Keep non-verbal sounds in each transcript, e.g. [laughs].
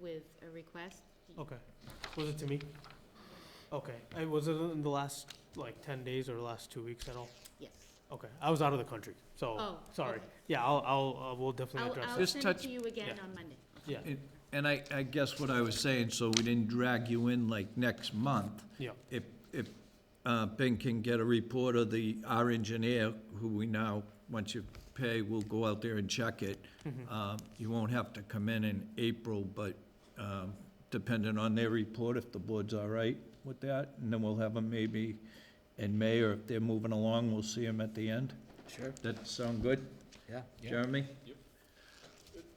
with a request. Okay. Was it to me? Okay. I was it in the last like ten days or last two weeks at all? Yes. Okay. I was out of the country, so Oh, sorry. okay. Yeah, I'll I'll uh, we'll definitely I'll, address I'll it. Just send it touch- to you again yeah. on Monday. Yeah, And- And I, I guess what I was saying, so we didn't drag you in like next month. yeah, If, if uh, Ben can get a report of the, our engineer, who we now, once you pay, will go out there and check it. Um, You won't have to come in in April, but um, depending on their report, if the board's all right with that, and then we'll have them maybe in May, or if they're moving along, we'll see them at the end. Sure. That sound good, Yeah. Jeremy? Yep.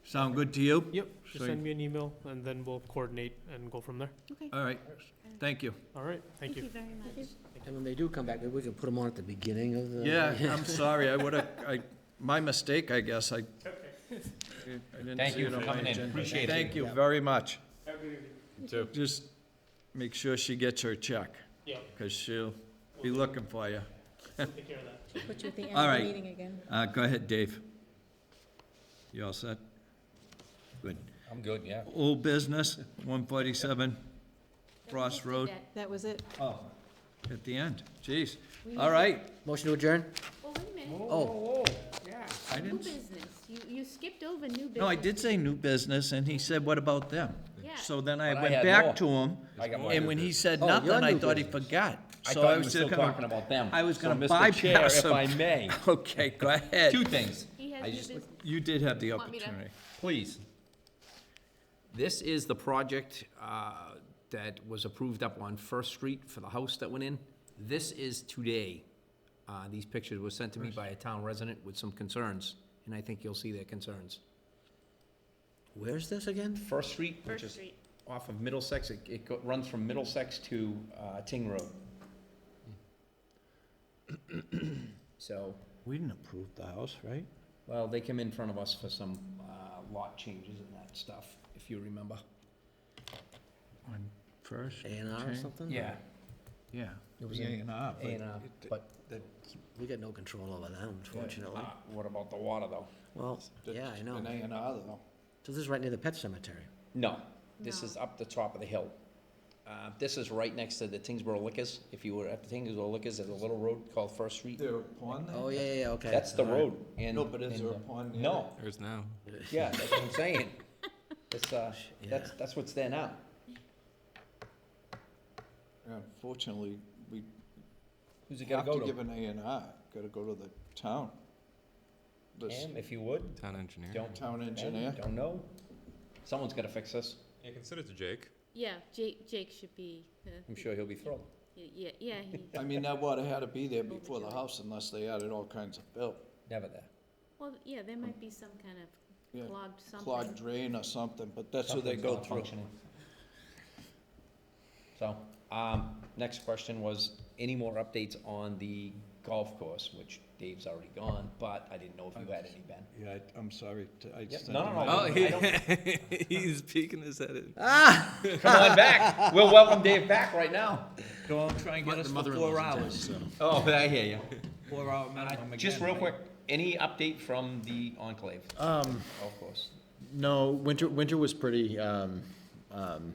Sound good to you? yep. So Just you- send me an email and then we'll coordinate and go from there. Okay. All right, Uh, thank you. All right. Thank you. very much. And when they do come back, maybe we can put them on at the beginning of the. [laughs] Yeah, I'm sorry, I would've, I, my mistake, I guess, I. I didn't Thank see you it for on my coming in. agenda. Appreciate it. Thank you very much. too. Just make sure she gets her check, Yeah. cause she'll be looking for you. Take care of that. Put you at the All end of right. the meeting again. Uh, go ahead, Dave. You all set? Good. I'm good, yeah. Old business, one forty-seven Ross Road. That was it. Oh, at the end, jeez. All right, Motion to adjourn? Well, wait a minute. Oh, I New didn't, s- business. You, you skipped over new business. no, I did say new business, and he said, what about them? Yeah. So then I But I went had back more. to him, I got more and new when he business. said Oh, your nothing, I new thought he business. forgot. So I thought we were just still gonna- talking about them. I was So, gonna Mr. Chair, bypass him. If I may, [laughs] Okay, [laughs] go two ahead. things. He has I new just- business. You did have the Want me to- opportunity. Please. This is the project uh, that was approved up on First Street for the house that went in. This is today. Uh, These pictures were sent to me by a town resident with some concerns, and I think you'll see their concerns. where's this again? First Street, which First is Street. off of Middlesex, it- it go- runs from Middlesex to uh, Ting Road. Hmm. So, We didn't approve the house, right? Well, they came in front of us for some uh, lot changes and that stuff, if you remember. On first? A and R or change? something? Yeah. It was the in R. A and R, but We got no control over that, unfortunately. Ah. uh, what about the water, though? Well, yeah, I know. An A and R, though. So this is right near the pet cemetery. No, this No. is up the top of the hill. Uh, This is right next to the Tingsboro Liquors. If you were at the Tingsboro Liquors, there's a little road called First Street. There a pond Oh, yeah, yeah, yeah, okay. That's the all right. road, and. No, but is and, there a uh, pond there? No, There's now. [laughs] yeah, that's what I'm saying. It's, uh, that's, Yeah. that's what's there now. Unfortunately, we Who's it have gonna to go give to? an A and R, gotta go to the town. This Cam, if you would. Town engineer. Don't- Town Ben, engineer. Don't know. Someone's gotta fix this. Yeah, consider to Jake. Yeah, Jake, Jake should be, uh, I'm sure he'll be thrilled. yeah, yeah, he, I mean, that water had to be there before the house unless they added all kinds of fill. Never there. well, yeah, there might be some kind of Yeah, clogged something. Clogged drain or something, but that's what they go Something's not through. functioning. So, um, next question was, any more updates on the golf course, which Dave's already gone, but I didn't know if you had any, Ben. Yeah, I'm sorry, I Yep, No, no, no. Oh, I don't- [laughs] he's peeking his head in. [laughs] Come on back. We'll welcome Dave back right now. Go and try and get us for four hours. Oh, I hear you. Four hour minimum Just again, real right? quick, any update from the enclave? Um. Golf course. No, winter, winter was pretty, um, um,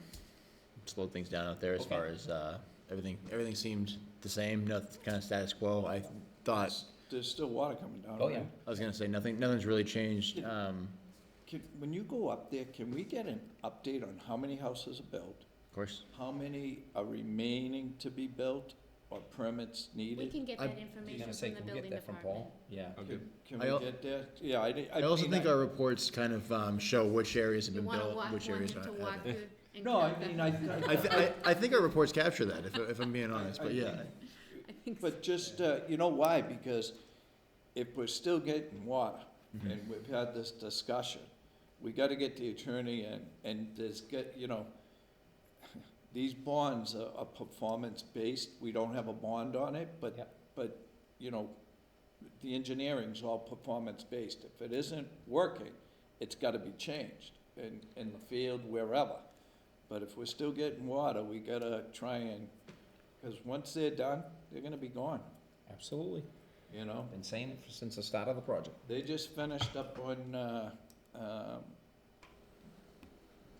slowed things down out there as Okay. far as, uh, everything, everything seemed the same, nothing, kinda status quo. I thought, There's still water coming down. Oh, yeah. right? I was gonna say, nothing, nothing's really changed, um, Can, when you go up there, can we get an update on how many houses are built? of course. How many are remaining to be built or permits We needed? can get I- that You're information gonna say, from the can we building get that from department. Paul? Yeah. Can can I al- we get there? Yeah, I, di- I I also mean, think our reports kind of, um, show which areas have You been wanna built, walk, want which him areas to haven't. walk through? and No, I cut that? mean, I, I- I, thi- I, I think our reports capture that, if, if I'm being honest, but yeah. I think so. but just, uh, you know why? Because if we're still getting water, and we've had this discussion, we gotta get the attorney and, and there's get, you know, [laughs] these bonds are, are performance-based, we don't have a bond on it, but, Yep. but, you know, the engineering's all performance-based. If it isn't working, it's gotta be changed in, in the field, wherever. But if we're still getting water, we gotta try and, because once they're done, they're gonna be gone, Absolutely. you know? Been saying it since the start of the project. They just finished up on, uh, um,